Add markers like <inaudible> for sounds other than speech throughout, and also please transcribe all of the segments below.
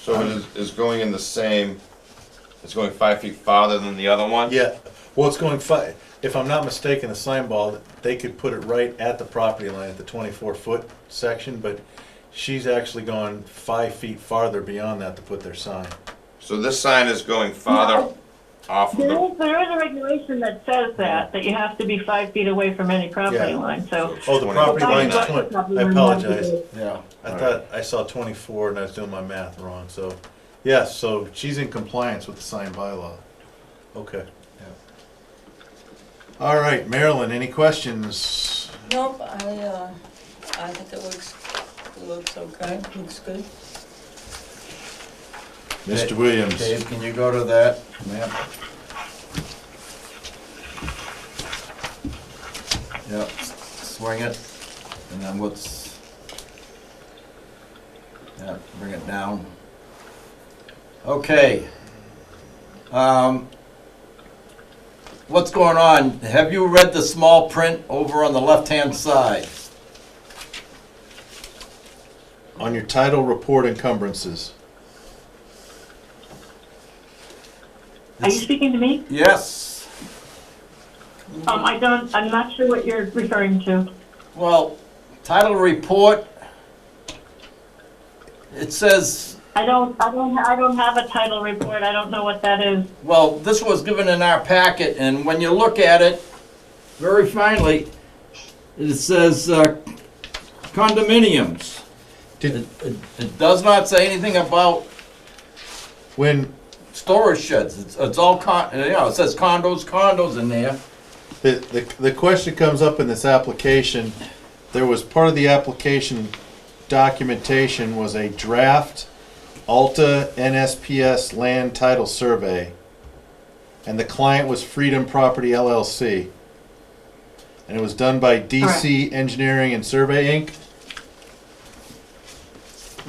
So it is, is going in the same, it's going five feet farther than the other one? Yeah, well, it's going fi, if I'm not mistaken, the sign ball, they could put it right at the property line at the twenty-four foot section, but she's actually gone five feet farther beyond that to put their sign. So this sign is going farther No. off of There the, is, there is a regulation that says that, that you have to be five feet away from any property Yeah. line, so. Oh, the property Twenty. line's Right. twenty, Property I line apologize, has to Yeah. I thought I saw twenty-four and I was doing my math wrong, so, yes, so she's in compliance with the sign bylaw. Okay. All right, Marilyn, any questions? Nope, I, uh, I think it looks, it looks okay, looks good. Mr. Williams? Dave, can you go to that map? Yep, swing it, and then what's? Yep, bring it down. Okay. Um, What's going on? Have you read the small print over on the left-hand side? On your title report encumbrances. Are you speaking to me? Yes. Um, I don't, I'm not sure what you're referring to. Well, title report, it says, I don't, I don't, I don't have a title report, I don't know what that is. well, this was given in our packet, and when you look at it very finely, it says uh, condominiums. It, Did, it- it does not say anything about when, storage sheds. It's, it's all con, you know, it says condos, condos in there. The, the, the question comes up in this application, there was part of the application documentation was a draft Alta NSPS land title survey. And the client was Freedom Property LLC. And it was done by DC Engineering and Survey Inc.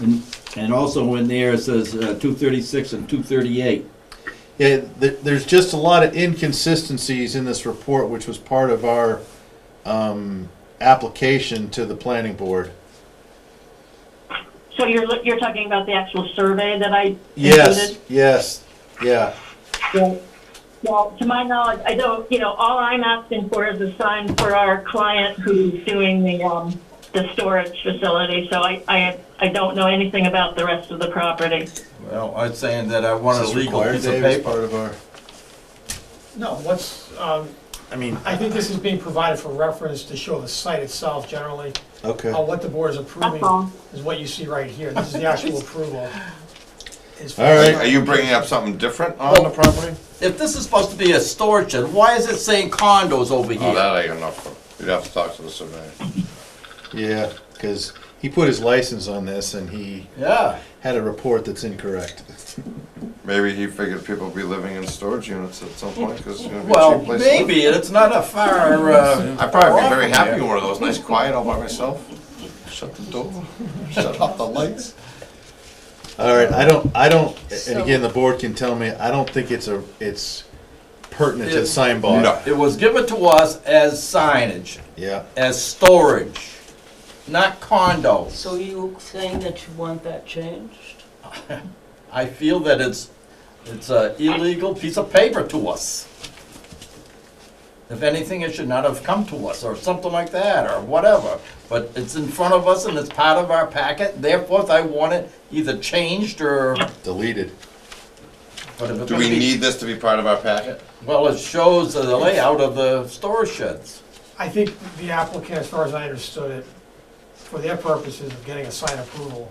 And, and also in there, it says uh, 236 and 238. Yeah, th- there's just a lot of inconsistencies in this report, which was part of our, um, application to the planning board. So you're, look- you're talking about the actual survey that I Yes, included? yes, yeah. Yes. Well, to my knowledge, I don't, you know, all I'm asking for is a sign for our client who's doing the, um, the storage facility, so I, I, I don't know anything about the rest of the property. Well, I'm saying that I want a Is this legal required, piece of Dave, as paper. Part of our, No, what's, um, I mean, I think this is being provided for reference to show the site itself generally. okay, Uh, What the board is That's all. approving is what you see right here. This is the actual approval. It's for- All right. are you bringing up something different on the property? If this is supposed to be a storage shed, why is it saying condos over Oh, here? that I don't know. You'd have to talk to the surveyor. yeah, because he put his license on this and he Yeah. had a report that's incorrect. Maybe he figured people would be living in storage units at some point, because it's gonna be a Well, cheap place to live. maybe, and it's not a far, uh, I'd probably be Well, very yeah. happy in one of those, nice quiet all by myself. Shut the door, <laughs> shut off the lights. All right, I don't, I don't, and again, the board can tell me, I don't think it's a, it's pertinent to the sign bylaw. No. it was given to us as signage, Yeah, as storage, not condos. So you saying that you want that changed? I feel that it's, it's a illegal piece of paper to us. If anything, it should not have come to us, or something like that, or whatever. But it's in front of us and it's part of our packet, therefore I want it either changed or. deleted. but if it's Do we gonna be- need this to be part of our packet? Well, it shows the layout of the storage sheds. I think the applicant, as far as I understood it, for their purposes of getting a sign approval,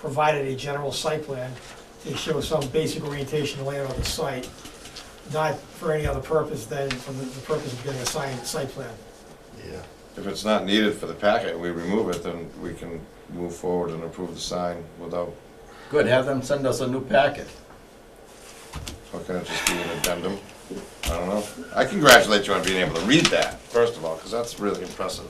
provided a general site plan to show some basic orientation and layout of the site, not for any other purpose than for the the purpose of getting a sign, site plan. Yeah. If it's not needed for the packet, we remove it, then we can move forward and approve the sign without, Good, have them send us a new packet. or can it just be an addendum? I don't know. I congratulate you on being able to read that, first of all, because that's really impressive.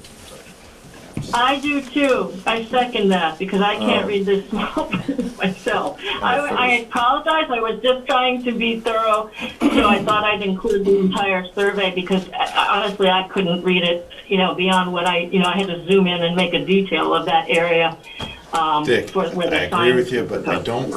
I do too. I second that because I can't Oh. read this small print <laughs> myself. I, for I this. apologize. I was just trying to be thorough, so I thought I'd include the entire survey because I- I- honestly, I couldn't read it. You know, beyond what I, you know, I had to zoom in and make a detail of that area. Um, Dick, for- where the I agree sign- with you, but I don't